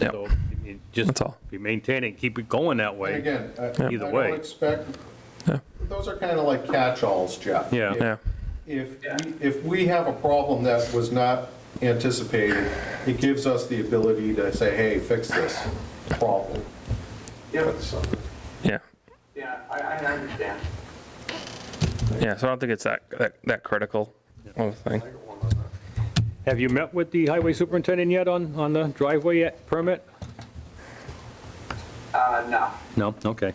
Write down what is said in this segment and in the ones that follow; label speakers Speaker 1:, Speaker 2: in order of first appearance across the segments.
Speaker 1: Yeah.
Speaker 2: So, I mean, Just
Speaker 1: That's all.
Speaker 2: be maintaining, keep it going that
Speaker 3: And
Speaker 2: way.
Speaker 3: again, I I
Speaker 2: Either
Speaker 3: don't
Speaker 2: way.
Speaker 3: expect,
Speaker 1: Yeah.
Speaker 3: those are kind of like catch-alls, Jeff.
Speaker 2: Yeah.
Speaker 1: Yeah.
Speaker 3: If, we- if we have a problem that was not anticipated, it gives us the ability to say, hey, fix this problem.
Speaker 4: Yeah,
Speaker 1: Yeah.
Speaker 4: yeah, I, I understand.
Speaker 1: Yeah. So I don't think it's that that, that critical of a thing.
Speaker 2: Have you met with the highway superintendent yet on, on the driveway yet- permit?
Speaker 4: Uh, no.
Speaker 2: No, okay.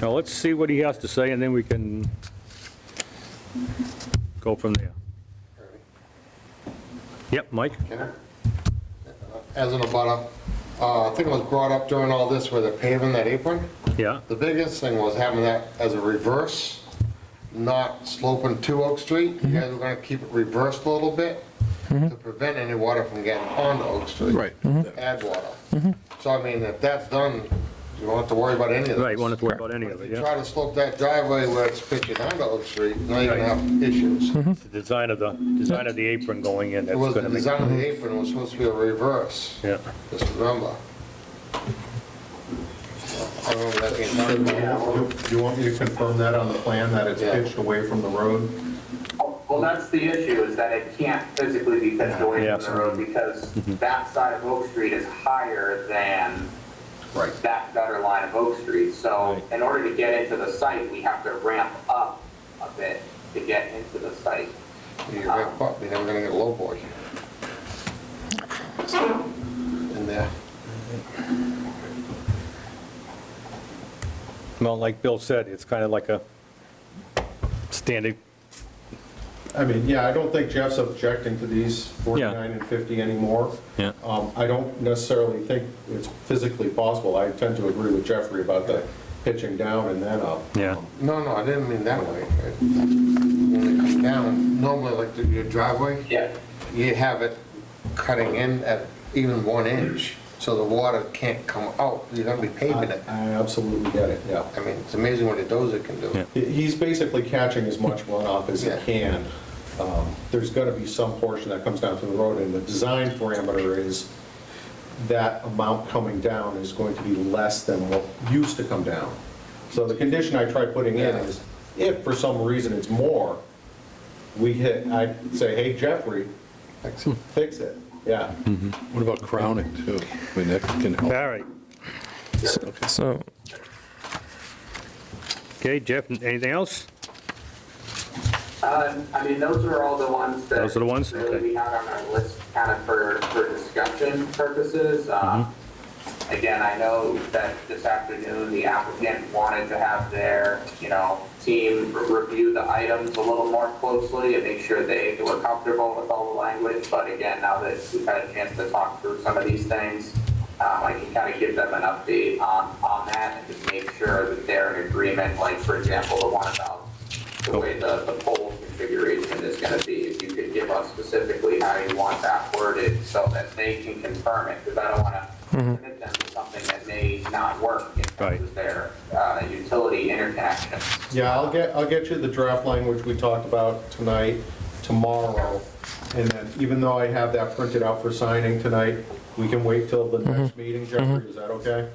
Speaker 2: Now, let's see what he has to say, and then we can go from there. Yep, Mike?
Speaker 5: as an abutter, uh, I think it was brought up during all this where they're paving that apron.
Speaker 2: Yeah,
Speaker 5: The biggest thing was having that as a reverse, not sloping to Oak Street.
Speaker 2: Mm-hmm.
Speaker 5: You guys were gonna keep it reversed a little bit to prevent any water from getting onto Oak Street.
Speaker 6: Right.
Speaker 2: Mm-hmm.
Speaker 5: Add water. So I mean, if that's done, you won't have to worry about any of this.
Speaker 2: right, won't have to worry about any of
Speaker 5: If
Speaker 2: it,
Speaker 5: you
Speaker 2: yeah.
Speaker 5: try to slope that driveway where it's pitching onto Oak Street, now you're gonna have issues.
Speaker 2: It's the design of the, design of the apron going in,
Speaker 5: It
Speaker 2: Mm-hmm. that's
Speaker 5: was, the
Speaker 2: gonna make, Mm-hmm.
Speaker 5: design of the apron was supposed to be a reverse.
Speaker 2: yeah.
Speaker 5: Just remember. I remember that being
Speaker 3: Do
Speaker 5: done.
Speaker 3: you want me to confirm that on the plan, that it's
Speaker 5: Yeah.
Speaker 3: pitched away from the road?
Speaker 4: Well, that's the issue, is that it can't physically be pitched away
Speaker 2: Yeah, Mhm.
Speaker 4: from the road because that side of Oak Street is higher than
Speaker 3: Right.
Speaker 4: that gutter line of Oak Street. So in order to get into the site, we have to ramp up a bit to get into the site. Um,
Speaker 5: You wrap up, you're never gonna get a low boy. In there.
Speaker 2: Well, like Bill said, it's kind of like a standard,
Speaker 3: I mean, yeah, I don't think Jeff's objecting to these 49 and 50 anymore.
Speaker 2: Yeah.
Speaker 3: Um, I don't necessarily think it's physically possible. I tend to agree with Jeffrey about the pitching down and then up.
Speaker 2: yeah,
Speaker 5: No, no, I didn't mean that way. When they come down, normally like the- your driveway,
Speaker 4: Yeah.
Speaker 5: you have it cutting in at even one inch, so the water can't come out. You're gonna be paving
Speaker 3: I
Speaker 5: it.
Speaker 3: I absolutely get it, yeah.
Speaker 5: I mean, it's amazing what a dozer can
Speaker 2: Yeah.
Speaker 5: do.
Speaker 3: He- He's basically catching as much runoff as he
Speaker 5: Yeah.
Speaker 3: can. Um, There's going to be some portion that comes down to the road, and the design parameter is that amount coming down is going to be less than what used to come down. So the condition I tried putting in is, if for some reason it's more, we hit, i say, hey, Jeffrey, fix it, yeah.
Speaker 6: What about crowning too? I mean, that can
Speaker 2: all
Speaker 6: help.
Speaker 2: right.
Speaker 1: So
Speaker 2: Okay, Jeff, anything else?
Speaker 4: Uh, I mean, those are all the ones that.
Speaker 2: Those are the ones?
Speaker 4: Really
Speaker 2: Okay.
Speaker 4: we had on our list kind of for, for discussion purposes. Uh,
Speaker 2: Mm-hmm.
Speaker 4: Again, I know that this afternoon, the applicant wanted to have their, you know, team re- review the items a little more closely and make sure they were comfortable with all the language. But again, now that we've had a chance to talk through some of these things, um, I can kind of give them an update on, on that and just make sure that they're in agreement, like, for example, the one about
Speaker 1: Oh.
Speaker 4: the way the, the pole configuration is gonna be, if you could give us specifically how you want that worded so that they can confirm it, because I don't wanna
Speaker 1: Mm-hmm.
Speaker 4: commit them to something that may not work in
Speaker 2: Right.
Speaker 4: terms of their, uh, utility interconnection.
Speaker 3: Yeah, I'll get, I'll get you the draft language we talked about tonight, tomorrow. And then even though I have that printed out for signing tonight, we can wait till the
Speaker 1: Mm-hmm.
Speaker 3: next meeting, Jeffrey, is that okay?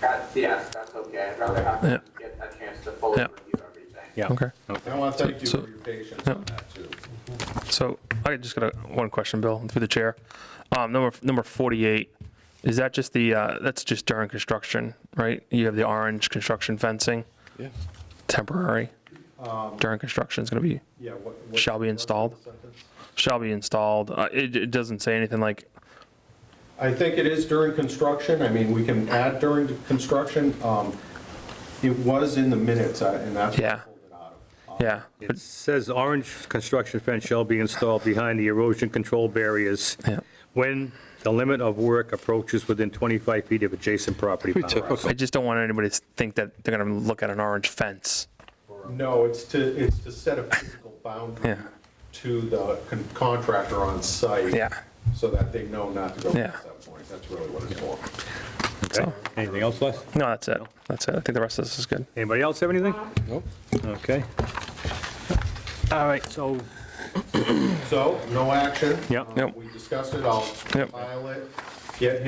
Speaker 4: That's, yes, that's okay, I'd rather have
Speaker 1: Yeah.
Speaker 4: them get a chance to fully
Speaker 1: Yeah.
Speaker 4: review everything.
Speaker 2: Yeah.
Speaker 1: okay.
Speaker 3: I want to thank you
Speaker 1: So-
Speaker 3: for your patience on that too.
Speaker 1: So I just got a, one question, Bill, through the chair. Um, number number 48. Is that just the uh, that's just during construction, right? You have the orange construction fencing,
Speaker 6: Yeah.
Speaker 1: temporary. during construction is going to be
Speaker 3: Yeah. what- what-
Speaker 1: Shall be installed.
Speaker 3: what's the sentence?
Speaker 1: shall be installed. Uh, it, it doesn't say anything like
Speaker 3: I think it is during construction, I mean, we can add during the construction. Um, It was in the minutes, uh, and that's what I
Speaker 1: Yeah.
Speaker 3: pulled it out of.
Speaker 1: yeah.
Speaker 2: It says orange construction fence shall be installed behind the erosion control barriers
Speaker 1: Yeah.
Speaker 2: when the limit of work approaches within 25 feet of adjacent property boundaries.
Speaker 1: I just don't want anybody to think that they're going to look at an orange fence.
Speaker 3: No, it's to, it's to set a physical boundary
Speaker 1: Yeah.
Speaker 3: to the con- contractor on site.
Speaker 1: Yeah.
Speaker 3: So that they know not to go
Speaker 1: Yeah.
Speaker 3: past that point. That's really what it's for.
Speaker 2: Okay. Anything else, Les?
Speaker 1: No, that's it. That's it. I think the rest of this is good.
Speaker 2: Anybody else have anything?
Speaker 6: Nope.
Speaker 2: Okay. All right, so,
Speaker 3: So, no action.
Speaker 2: Yep.
Speaker 3: Um,
Speaker 1: Yep.
Speaker 3: We discussed it, I'll
Speaker 1: Yep.
Speaker 3: file it. Yeah,